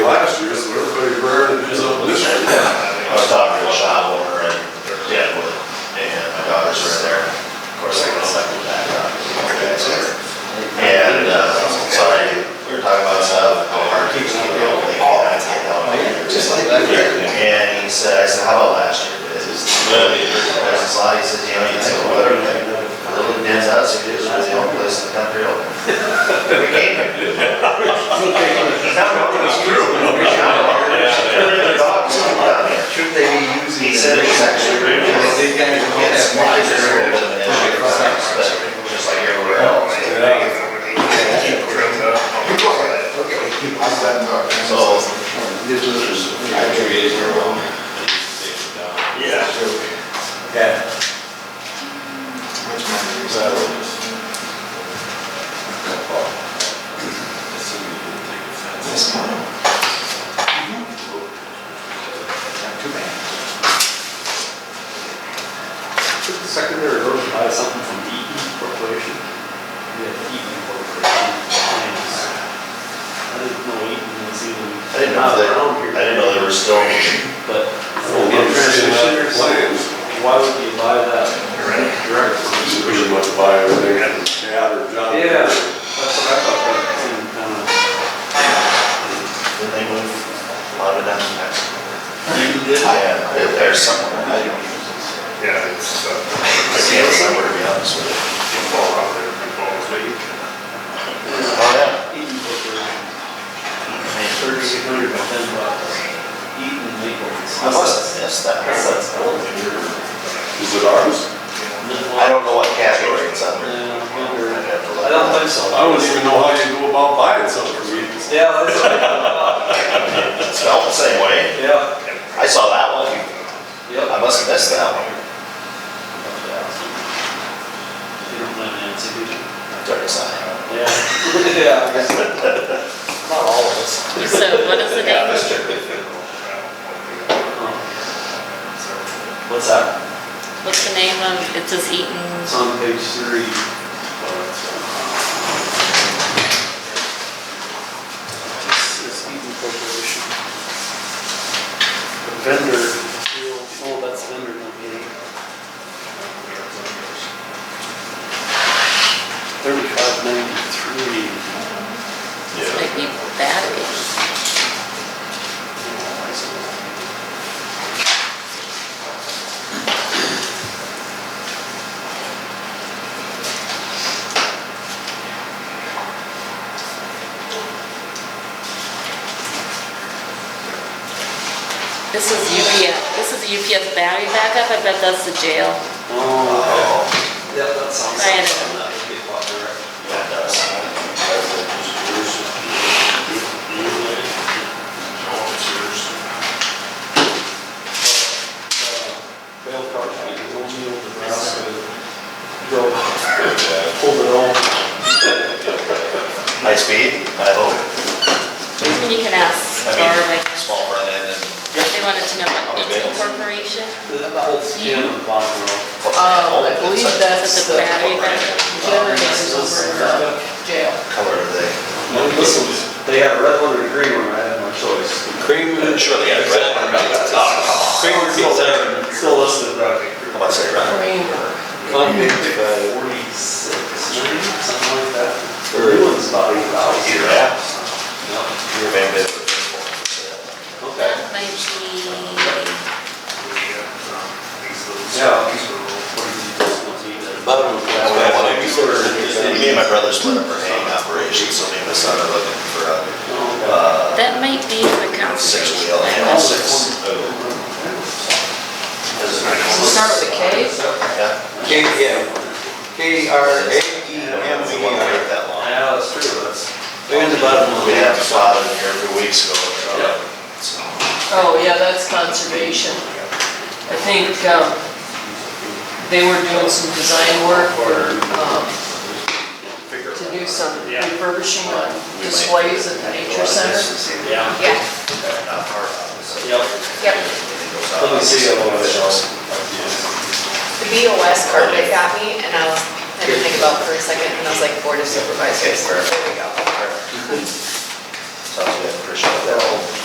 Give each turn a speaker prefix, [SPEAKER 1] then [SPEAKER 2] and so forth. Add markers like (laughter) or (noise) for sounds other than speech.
[SPEAKER 1] uh, (laughs) Oh.
[SPEAKER 2] two days in a row. They take it down.
[SPEAKER 3] Yeah.
[SPEAKER 2] Yeah.
[SPEAKER 3] Which one is
[SPEAKER 2] So,
[SPEAKER 3] that?
[SPEAKER 2] Assuming you didn't take offense.
[SPEAKER 3] This one. Not too bad.
[SPEAKER 4] Took the secondary road to buy something from Eaton Corporation. We had Eaton Corporation. plans. I didn't know Eaton was even.
[SPEAKER 1] I didn't know they-
[SPEAKER 4] around here.
[SPEAKER 1] I didn't know they were still.
[SPEAKER 4] But. In transmission or something, why would you buy that direct from E Eaton?
[SPEAKER 1] Pretty much buy everything.
[SPEAKER 4] Yeah, that's what I thought, that seemed kind of.
[SPEAKER 1] Then they move a lot of them to Mexico.
[SPEAKER 4] E
[SPEAKER 2] You did?
[SPEAKER 1] Yeah, they're there somewhere. I don't
[SPEAKER 3] Yeah, it's, uh,
[SPEAKER 1] I see it somewhere, to be honest with you.
[SPEAKER 3] you fall out there, you fall asleep.
[SPEAKER 1] Oh, yeah.
[SPEAKER 4] Eaton E Corporation,
[SPEAKER 1] I mean,
[SPEAKER 4] thirty-eight hundred by ten bucks. E Eaton legal.
[SPEAKER 1] I must, that's, that- that's, that's old.
[SPEAKER 5] Is it ours?
[SPEAKER 1] I don't know what category it's under.
[SPEAKER 4] Yeah, I
[SPEAKER 1] I'd
[SPEAKER 4] wonder.
[SPEAKER 1] have to look.
[SPEAKER 4] I don't think so.
[SPEAKER 5] I don't even know how you go about buying something from Eaton's.
[SPEAKER 4] Yeah, that's what I thought.
[SPEAKER 1] It smelled the same way.
[SPEAKER 4] Yeah,
[SPEAKER 1] I saw that one.
[SPEAKER 4] yep.
[SPEAKER 1] I must have missed that one.
[SPEAKER 4] You don't blame Nancy, do you?
[SPEAKER 1] Dirty sign.
[SPEAKER 4] Yeah. Yeah, I guess.
[SPEAKER 1] Not all of us.
[SPEAKER 6] So what is the
[SPEAKER 1] Yeah,
[SPEAKER 6] date?
[SPEAKER 1] that's true.
[SPEAKER 4] What's that?
[SPEAKER 6] What's the name of, it says Eaton,
[SPEAKER 4] It's on page three. This is Eaton Corporation. The vendor, oh, that's vendor company. Thirty-five ninety-three.
[SPEAKER 6] it's maybe Battery. This is UPS, this is UPS battery backup, I bet that's the jail.
[SPEAKER 4] Oh, okay. Yeah, that sounds.
[SPEAKER 6] I had it.
[SPEAKER 4] That would be a lot direct.
[SPEAKER 1] Yeah, it does.
[SPEAKER 4] Bail car, I can hold you over the ground, go, hold it all.
[SPEAKER 1] High speed, I hope.
[SPEAKER 6] You can ask
[SPEAKER 1] I
[SPEAKER 6] Barb,
[SPEAKER 1] mean,
[SPEAKER 6] I guess.
[SPEAKER 1] small front end and.
[SPEAKER 6] They wanted to know about
[SPEAKER 1] Oh,
[SPEAKER 6] Eaton
[SPEAKER 1] yes.
[SPEAKER 6] Corporation.
[SPEAKER 4] That whole skin of the bottom row.
[SPEAKER 7] Um, I believe
[SPEAKER 1] It's a
[SPEAKER 7] that's
[SPEAKER 6] The
[SPEAKER 7] the
[SPEAKER 6] battery backup.
[SPEAKER 7] generators over in the jail.
[SPEAKER 1] Color of the.
[SPEAKER 4] And Listen, they had a red one or a green one, I had no choice.
[SPEAKER 2] Cream.
[SPEAKER 1] Surely, yeah, red. Oh,
[SPEAKER 2] Cream
[SPEAKER 4] Still
[SPEAKER 2] pizza.
[SPEAKER 4] there, still listed, right?
[SPEAKER 1] come on. What's it, red?
[SPEAKER 7] Kramer.
[SPEAKER 4] Fund page forty-six, maybe, something like that. The new one's about eight thousand.
[SPEAKER 1] Either that.
[SPEAKER 4] Yeah.
[SPEAKER 1] You remember it was for
[SPEAKER 4] Okay.
[SPEAKER 6] That might be.
[SPEAKER 3] um,
[SPEAKER 4] Bottom of
[SPEAKER 1] sale.
[SPEAKER 4] that one.
[SPEAKER 1] Me and my brother split up our hanging operation, so me and my son are looking for a, uh,
[SPEAKER 6] That might be the
[SPEAKER 1] six
[SPEAKER 6] conversation.
[SPEAKER 1] wheel, you know, six.
[SPEAKER 7] Start with a K?
[SPEAKER 1] Yeah.
[SPEAKER 2] K, yeah. K R A E
[SPEAKER 1] We
[SPEAKER 2] M
[SPEAKER 1] don't
[SPEAKER 2] E
[SPEAKER 1] want to
[SPEAKER 2] R.
[SPEAKER 1] wait that long.
[SPEAKER 4] Yeah, that's true, that's, they're in the bottom of
[SPEAKER 1] We
[SPEAKER 4] the.
[SPEAKER 1] have a lot in here every week, so. uh,
[SPEAKER 4] Yeah.
[SPEAKER 1] So,
[SPEAKER 7] Oh, yeah, that's conservation. I think, um, they were doing some design work or, um,
[SPEAKER 1] figure
[SPEAKER 7] to
[SPEAKER 1] it
[SPEAKER 7] do some
[SPEAKER 4] Yeah.
[SPEAKER 7] refurbishing on displays at the nature center.
[SPEAKER 4] Yeah.
[SPEAKER 6] Yeah.
[SPEAKER 1] out. Not hard, obviously.
[SPEAKER 4] Yep.
[SPEAKER 8] Yep.
[SPEAKER 1] It goes out.
[SPEAKER 4] Let me see that one of those.
[SPEAKER 8] The BOS card they got me, and I was, I didn't think about it for a second, and I was like, Board of Supervisors, there we go.
[SPEAKER 1] Sounds good, appreciate that.